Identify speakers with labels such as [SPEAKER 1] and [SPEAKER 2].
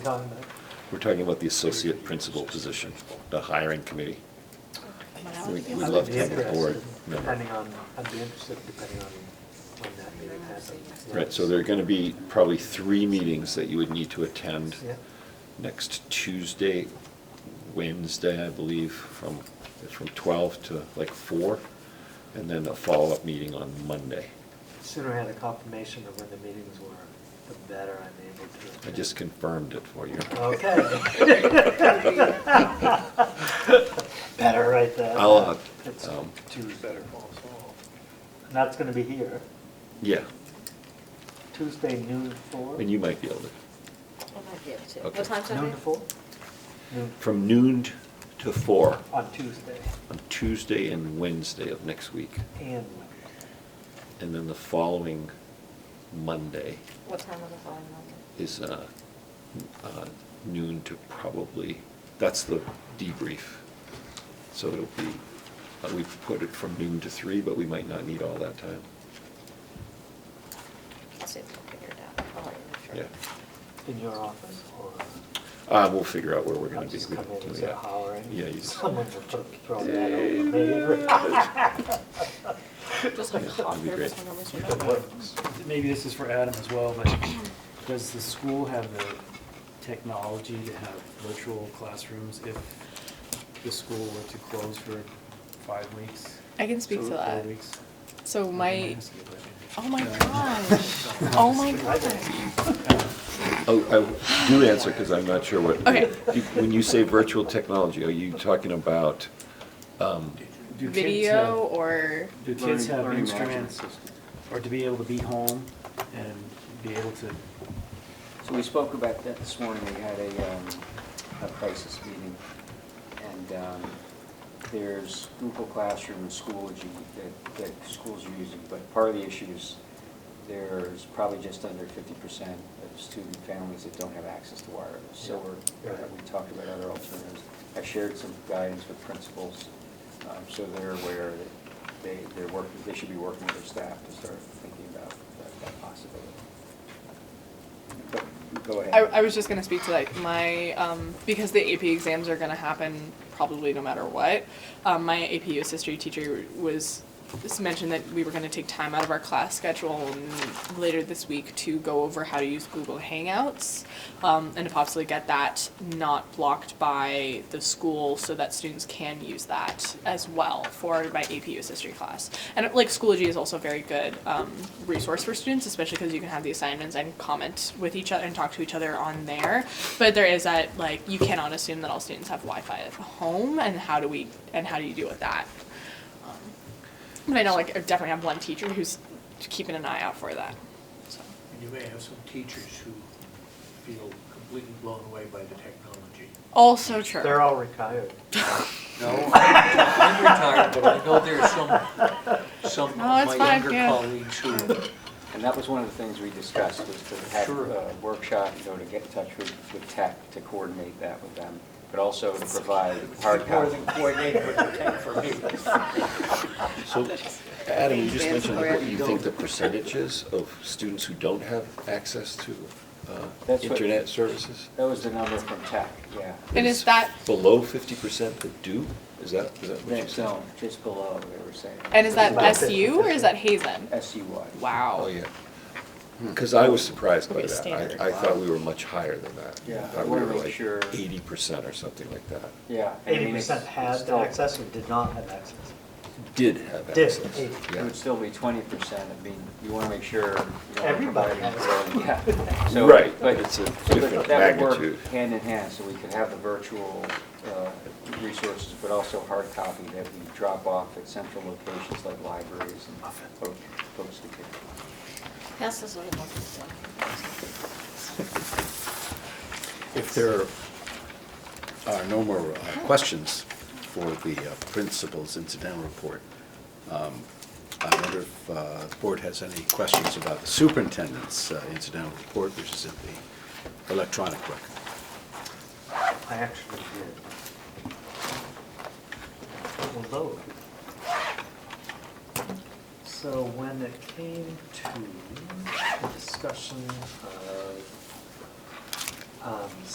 [SPEAKER 1] talking about?
[SPEAKER 2] We're talking about the associate principal position, the hiring committee. We'd we'd love to have a board member.
[SPEAKER 1] Depending on, I'd be interested depending on when that meeting happens.
[SPEAKER 2] Right, so there are going to be probably three meetings that you would need to attend
[SPEAKER 1] Yeah.
[SPEAKER 2] next Tuesday, Wednesday, I believe, from, it's from 12 to like 4, and then a follow-up meeting on Monday.
[SPEAKER 1] Sooner I had a confirmation of when the meetings were, the better I'm able to.
[SPEAKER 2] I just confirmed it for you.
[SPEAKER 1] Okay. Better right there.
[SPEAKER 2] I'll, uh,
[SPEAKER 1] It's
[SPEAKER 2] um,
[SPEAKER 1] Tuesday. And that's gonna be here,
[SPEAKER 2] Yeah,
[SPEAKER 1] Tuesday noon to four?
[SPEAKER 2] and you might be able to, Okay.
[SPEAKER 3] What time's that?
[SPEAKER 1] Noon to four? Noon,
[SPEAKER 2] from noon to 4
[SPEAKER 1] on Tuesday
[SPEAKER 2] on Tuesday and Wednesday of next week.
[SPEAKER 1] and Wednesday.
[SPEAKER 2] And then the following Monday
[SPEAKER 3] What time was the following Monday?
[SPEAKER 2] is uh, uh, noon to probably, that's the debrief. So it'll be, uh, we've put it from noon to three, but we might not need all that time.
[SPEAKER 3] I'll see if I can figure it out. I'll let you know,
[SPEAKER 2] Yeah.
[SPEAKER 3] sure.
[SPEAKER 1] In your office or?
[SPEAKER 2] Uh, We'll figure out where we're
[SPEAKER 1] I'll
[SPEAKER 2] going to be.
[SPEAKER 1] just come in and
[SPEAKER 2] Yeah.
[SPEAKER 1] start hollering.
[SPEAKER 2] Yeah, you-
[SPEAKER 1] Someone's gonna throw that over me.
[SPEAKER 3] Just like
[SPEAKER 2] That'd
[SPEAKER 3] hot
[SPEAKER 2] be
[SPEAKER 3] nervous
[SPEAKER 2] great.
[SPEAKER 3] when I'm with
[SPEAKER 4] But
[SPEAKER 3] you.
[SPEAKER 4] what- Maybe this is for Adam as well, but does the school have the technology to have virtual classrooms if the school were to close for five weeks?
[SPEAKER 5] I can speak
[SPEAKER 4] So, uh,
[SPEAKER 5] to
[SPEAKER 4] four
[SPEAKER 5] that.
[SPEAKER 4] weeks?
[SPEAKER 5] So
[SPEAKER 4] Okay,
[SPEAKER 5] my,
[SPEAKER 4] that's a good idea.
[SPEAKER 5] oh my
[SPEAKER 4] Yeah.
[SPEAKER 5] gosh, oh my gosh.
[SPEAKER 2] Oh, I do answer because I'm not sure what.
[SPEAKER 5] Okay.
[SPEAKER 2] You- When you say virtual technology, are you talking about, um,
[SPEAKER 4] Do kids have-
[SPEAKER 5] Video or,
[SPEAKER 4] Do kids
[SPEAKER 6] Learning-
[SPEAKER 4] have
[SPEAKER 6] learning management
[SPEAKER 4] instruments,
[SPEAKER 6] system.
[SPEAKER 4] or to be able to be home and be able to,
[SPEAKER 6] So we spoke about that this morning, we had a, um, a crisis meeting, and, um, there's Google Classroom and Schoology that, that schools are using, but part of the issue is there's probably just under fifty percent of student families that don't have access to wireless. So we're, uh,
[SPEAKER 1] Yeah.
[SPEAKER 6] we talked about other alternatives. I shared some guidance with principals, um, so they're aware that they, they're working, they should be working with their staff to start thinking about that- that possibility. Go- Go ahead.
[SPEAKER 5] I, I was just gonna speak to like my, um, because the AP exams are gonna happen probably no matter what. Um, my AP US history teacher was, just mentioned that we were gonna take time out of our class schedule and later this week to go over how to use Google Hangouts. Um, and to possibly get that not blocked by the school so that students can use that as well for my AP US history class. And like Schoology is also a very good um, resource for students, especially because you can have the assignments and comment with each other and talk to each other on there. But there is that like you cannot assume that all students have Wi-Fi at home, and how do we and how do you deal with that? Um, but I know like I definitely have one teacher who's keeping an eye out for that. So.
[SPEAKER 7] And you may have some teachers who feel completely blown away by the technology.
[SPEAKER 5] Also true.
[SPEAKER 1] They're all retired.
[SPEAKER 7] No, I'm retired, but I know there's some, some of
[SPEAKER 5] No, it's
[SPEAKER 7] my
[SPEAKER 5] Oh, fine,
[SPEAKER 7] younger
[SPEAKER 5] yeah.
[SPEAKER 7] colleagues who,
[SPEAKER 6] And that was one of the things we discussed, was to have
[SPEAKER 7] Sure.
[SPEAKER 6] a workshop, you know, to get in touch with, with tech, to coordinate that with them, but also to provide hard
[SPEAKER 7] more
[SPEAKER 6] copy.
[SPEAKER 7] than coordinated with the tech for me.
[SPEAKER 2] so, Adam, you just mentioned what you think the percentage is of students who don't have access to uh,
[SPEAKER 6] That's what-
[SPEAKER 2] internet services?
[SPEAKER 6] That was the number from tech, yeah.
[SPEAKER 5] And is that
[SPEAKER 2] Below fifty percent that do? Is that, is that what you
[SPEAKER 6] Next
[SPEAKER 2] said?
[SPEAKER 6] zone, just below, they were saying.
[SPEAKER 5] and is that
[SPEAKER 1] About
[SPEAKER 5] SU or is that Hazen?
[SPEAKER 6] SUY.
[SPEAKER 5] Wow.
[SPEAKER 2] Oh, yeah. Because I was surprised by
[SPEAKER 5] Okay,
[SPEAKER 2] that.
[SPEAKER 5] standard.
[SPEAKER 2] I, I thought we were much higher than that.
[SPEAKER 6] Yeah, I
[SPEAKER 2] thought we
[SPEAKER 6] wanna
[SPEAKER 2] were
[SPEAKER 6] make
[SPEAKER 2] like
[SPEAKER 6] sure-
[SPEAKER 2] Eighty percent or something like that.
[SPEAKER 6] Yeah. and I mean,
[SPEAKER 1] Eighty
[SPEAKER 6] it's-
[SPEAKER 1] percent
[SPEAKER 6] it's
[SPEAKER 1] had
[SPEAKER 6] still-
[SPEAKER 1] access or did not have access.
[SPEAKER 2] Did have
[SPEAKER 1] Did,
[SPEAKER 2] access.
[SPEAKER 1] eighty.
[SPEAKER 6] It
[SPEAKER 2] Yeah.
[SPEAKER 6] would still be twenty percent, I mean, you want to make sure. you know,
[SPEAKER 1] Everybody
[SPEAKER 6] providing-
[SPEAKER 1] has.
[SPEAKER 6] Yeah. So,
[SPEAKER 2] Right,
[SPEAKER 6] but-
[SPEAKER 2] it's a
[SPEAKER 6] so that-
[SPEAKER 2] different
[SPEAKER 6] That would
[SPEAKER 2] magnitude.
[SPEAKER 6] work hand in hand, so we could have the virtual uh, resources, but also hard copy that we drop off at central locations like libraries and fo- folks to get.
[SPEAKER 3] Pass this little one.
[SPEAKER 8] If there are no more uh, questions for the uh, principal's incidental report, um, I wonder if uh, the board has any questions about the superintendent's uh, incidental report, which is in the electronic record.
[SPEAKER 1] I actually did. Although. So when it came to the discussion of um,